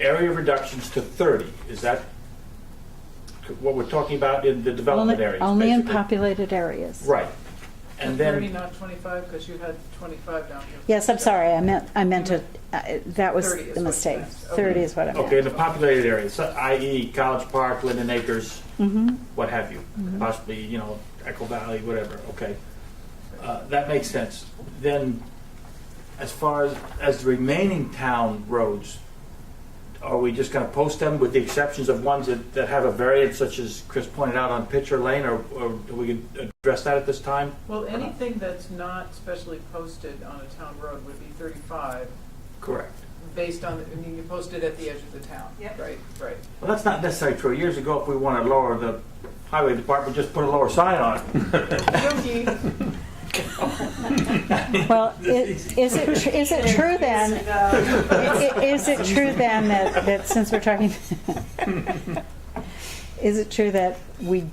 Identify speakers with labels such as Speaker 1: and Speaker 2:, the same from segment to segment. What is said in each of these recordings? Speaker 1: area reductions to 30, is that what we're talking about in the development
Speaker 2: Only,
Speaker 1: areas?
Speaker 2: only in
Speaker 1: basically?
Speaker 2: populated areas.
Speaker 1: Right. And
Speaker 3: Thirty,
Speaker 1: then,
Speaker 3: not twenty-five, because you had twenty-five down here.
Speaker 2: Yes, I'm sorry, I meant, I meant to, uh, that was
Speaker 3: 30 is what
Speaker 2: the
Speaker 3: you
Speaker 2: mistake.
Speaker 3: meant. Okay.
Speaker 2: 30 is what I meant.
Speaker 1: okay, in the populated areas, so i.e. College Park, Linden Acres,
Speaker 2: Mhm.
Speaker 1: what have you, possibly, you know, Echo Valley, whatever, okay. Uh, That makes sense. Then, as far as, as the remaining town roads, are we just gonna post them with the exceptions of ones that, that have a variance such as Chris pointed out on Pitcher Lane, or, or do we address that at this time?
Speaker 3: Well, anything that's not specially posted on a town road would be thirty-five,
Speaker 1: Correct.
Speaker 3: based on, I mean, you post it at the edge of the town.
Speaker 4: Yep.
Speaker 3: Right, right.
Speaker 1: Well, that's not necessarily true. Years ago, if we wanted to lower the highway department, just put a lower sign on it.
Speaker 3: Yogi,
Speaker 2: Well, i- is it, tr- is it true then,
Speaker 4: No.
Speaker 2: i- i- is it true then that, that since we're talking, is it true that we,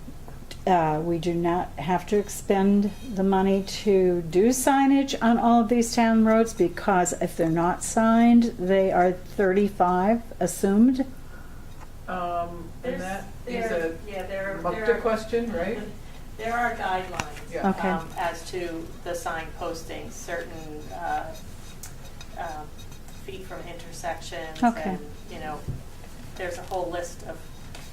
Speaker 2: uh, we do not have to expend the money to do signage on all of these town roads? Because if they're not signed, they are 35 assumed?
Speaker 3: um, and
Speaker 4: There's-
Speaker 3: that is
Speaker 4: there-
Speaker 3: a
Speaker 4: Yeah, there, there
Speaker 3: Mukta
Speaker 4: are,
Speaker 3: question, right?
Speaker 4: there are guidelines.
Speaker 3: Yeah.
Speaker 2: Okay.
Speaker 4: um, As to the sign posting, certain uh, um, feet from intersections.
Speaker 2: Okay.
Speaker 4: And, you know, there's a whole list of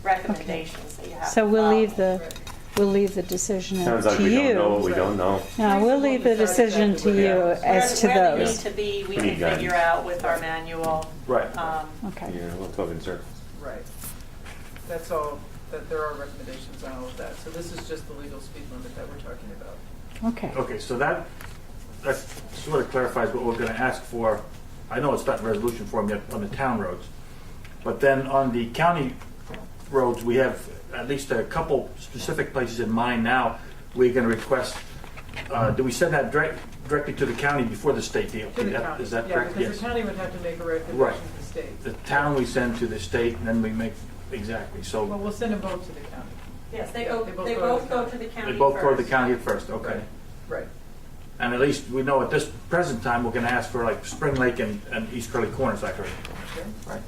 Speaker 4: recommendations that you have to
Speaker 2: So we'll leave
Speaker 4: follow.
Speaker 2: the,
Speaker 3: Right.
Speaker 2: we'll leave the decision
Speaker 5: Sounds
Speaker 2: to
Speaker 5: like we don't know
Speaker 2: you.
Speaker 5: what we don't know.
Speaker 2: No, we'll leave the decision to you
Speaker 3: Yeah.
Speaker 2: as to
Speaker 4: Where they
Speaker 2: those.
Speaker 4: need to be, we
Speaker 5: We need
Speaker 4: can figure
Speaker 5: guidance.
Speaker 4: out with our manual.
Speaker 1: Right.
Speaker 4: um,
Speaker 2: Okay,
Speaker 5: Yeah, we'll talk in circles.
Speaker 3: Right. That's all, that there are recommendations on all of that. So this is just the legal speed limit that we're talking about.
Speaker 2: okay.
Speaker 1: Okay, so that, that sort of clarifies what we're gonna ask for. I know it's not in resolution form yet on the town roads. But then on the county roads, we have at least a couple specific places in mind now. We're gonna request, uh, do we send that direct, directly to the county before the state DOT?
Speaker 3: To the
Speaker 1: That-
Speaker 3: county.
Speaker 1: Is that
Speaker 3: Yeah,
Speaker 1: correct?
Speaker 3: because the county would have to make a recommendation
Speaker 1: Right.
Speaker 3: to the state.
Speaker 1: The town we send to the state and then we make, exactly, so.
Speaker 3: Well, we'll send them both to the county.
Speaker 4: Yes, they,
Speaker 3: They
Speaker 4: o-
Speaker 3: both
Speaker 4: they
Speaker 3: go to
Speaker 4: both
Speaker 3: the
Speaker 4: go
Speaker 3: county.
Speaker 4: to the county
Speaker 1: They both go to the
Speaker 4: first.
Speaker 1: county at first, okay.
Speaker 3: Right.
Speaker 1: And at least we know at this present time, we're gonna ask for like Spring Lake and, and East Curly Corners, I heard.
Speaker 3: Sure.
Speaker 1: Right.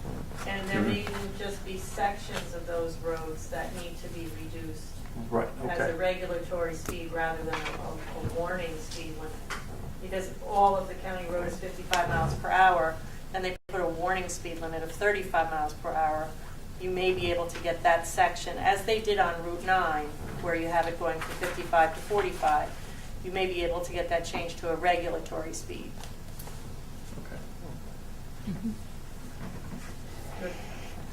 Speaker 4: And
Speaker 1: Mm-hmm.
Speaker 4: there may even just be sections of those roads that need to be reduced
Speaker 1: Right,
Speaker 4: as a
Speaker 1: okay.
Speaker 4: regulatory speed rather than a, a warning speed limit. Because all of the county roads fifty-five miles per hour, and they put a warning speed limit of thirty-five miles per hour, you may be able to get that section, as they did on Route nine, where you have it going from fifty-five to forty-five, you may be able to get that changed to a regulatory speed.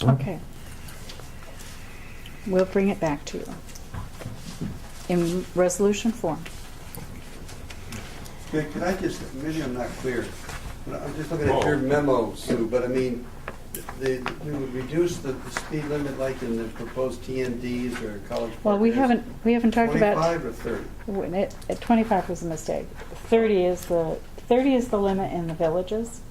Speaker 2: Okay. We'll bring it back to you in resolution form.
Speaker 6: Okay, Could I just, maybe I'm not clear. But I'm just looking at
Speaker 5: Whoa.
Speaker 6: your memo, Sue, but I mean, the, we would reduce the the speed limit like in the proposed TNDs or college.
Speaker 2: Well, we
Speaker 6: Park.
Speaker 2: haven't, we haven't talked about,
Speaker 6: Twenty-five or thirty?
Speaker 2: when it- uh, 25 was a mistake. 30 is the, 30 is the limit in the villages.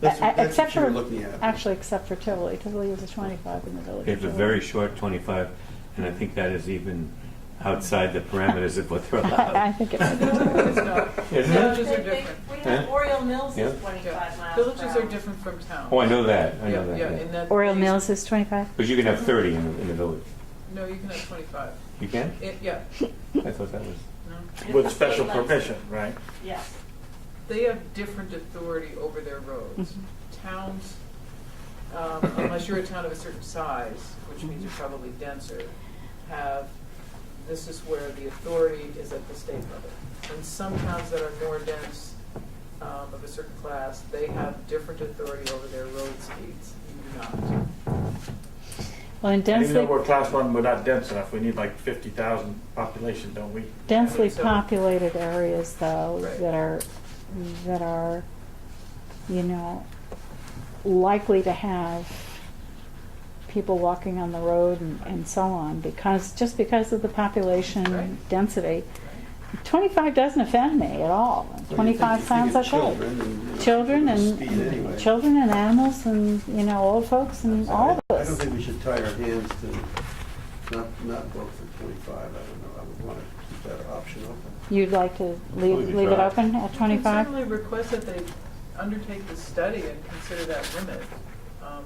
Speaker 6: That's
Speaker 2: Uh,
Speaker 6: what- that's
Speaker 2: except
Speaker 6: what you were
Speaker 2: for-
Speaker 6: looking at.
Speaker 2: Actually, except for Tivoli, Tivoli was a 25 in the village.
Speaker 7: It's a very short 25, and I think that is even outside the parameters of what they're
Speaker 2: I I
Speaker 7: allowed.
Speaker 2: think it
Speaker 3: No,
Speaker 2: might be.
Speaker 3: it's not.
Speaker 7: Isn't it?
Speaker 3: Villages are
Speaker 4: They- they-
Speaker 3: different.
Speaker 4: We have
Speaker 7: Yeah.
Speaker 4: Oriole Mills
Speaker 7: Yeah.
Speaker 4: is twenty-five
Speaker 3: Yeah.
Speaker 4: miles per hour.
Speaker 3: Villages are different from towns.
Speaker 7: Oh, I know that, I
Speaker 3: Yeah,
Speaker 7: know
Speaker 3: yeah,
Speaker 7: that.
Speaker 3: and that-
Speaker 2: Oriole Mills is 25?
Speaker 7: Because you can have 30 in the- in the village.
Speaker 3: No, you can have twenty-five.
Speaker 7: You can?
Speaker 3: It, yeah,
Speaker 7: I thought that was...
Speaker 3: no.
Speaker 1: With special permission, right?
Speaker 4: Yes.
Speaker 3: They have different authority over their roads.
Speaker 2: Mm-hmm.
Speaker 3: Towns, um, unless you're a town of a certain size, which means you're probably denser, have, this is where the authority is at the state level. And some towns that are more dense, um, of a certain class, they have different authority over their road speeds. You do not.
Speaker 2: Well, in
Speaker 1: And Even though
Speaker 2: densely,
Speaker 1: we're class one, we're not dense enough. We need like fifty thousand population, don't we?
Speaker 2: densely
Speaker 3: So-
Speaker 2: populated areas though,
Speaker 3: Right.
Speaker 2: that are, that are, you know, likely to have people walking on the road and, and so on, because, just because of the population
Speaker 3: Right.
Speaker 2: density. Twenty-five doesn't offend me at all. Twenty-five sounds okay. Children
Speaker 6: Speed anyway.
Speaker 2: and, children and animals and, you know, old folks and
Speaker 6: So
Speaker 2: all
Speaker 6: I-
Speaker 2: of
Speaker 6: I don't
Speaker 2: us.
Speaker 6: think we should tie our hands to not, not vote for twenty-five. I don't know. I would want to keep that option open.
Speaker 2: You'd like to leave,
Speaker 5: Leave it
Speaker 2: leave it
Speaker 5: dry.
Speaker 2: open at
Speaker 3: You can
Speaker 2: twenty-five?
Speaker 3: certainly request that they undertake the study and consider that limit. Um,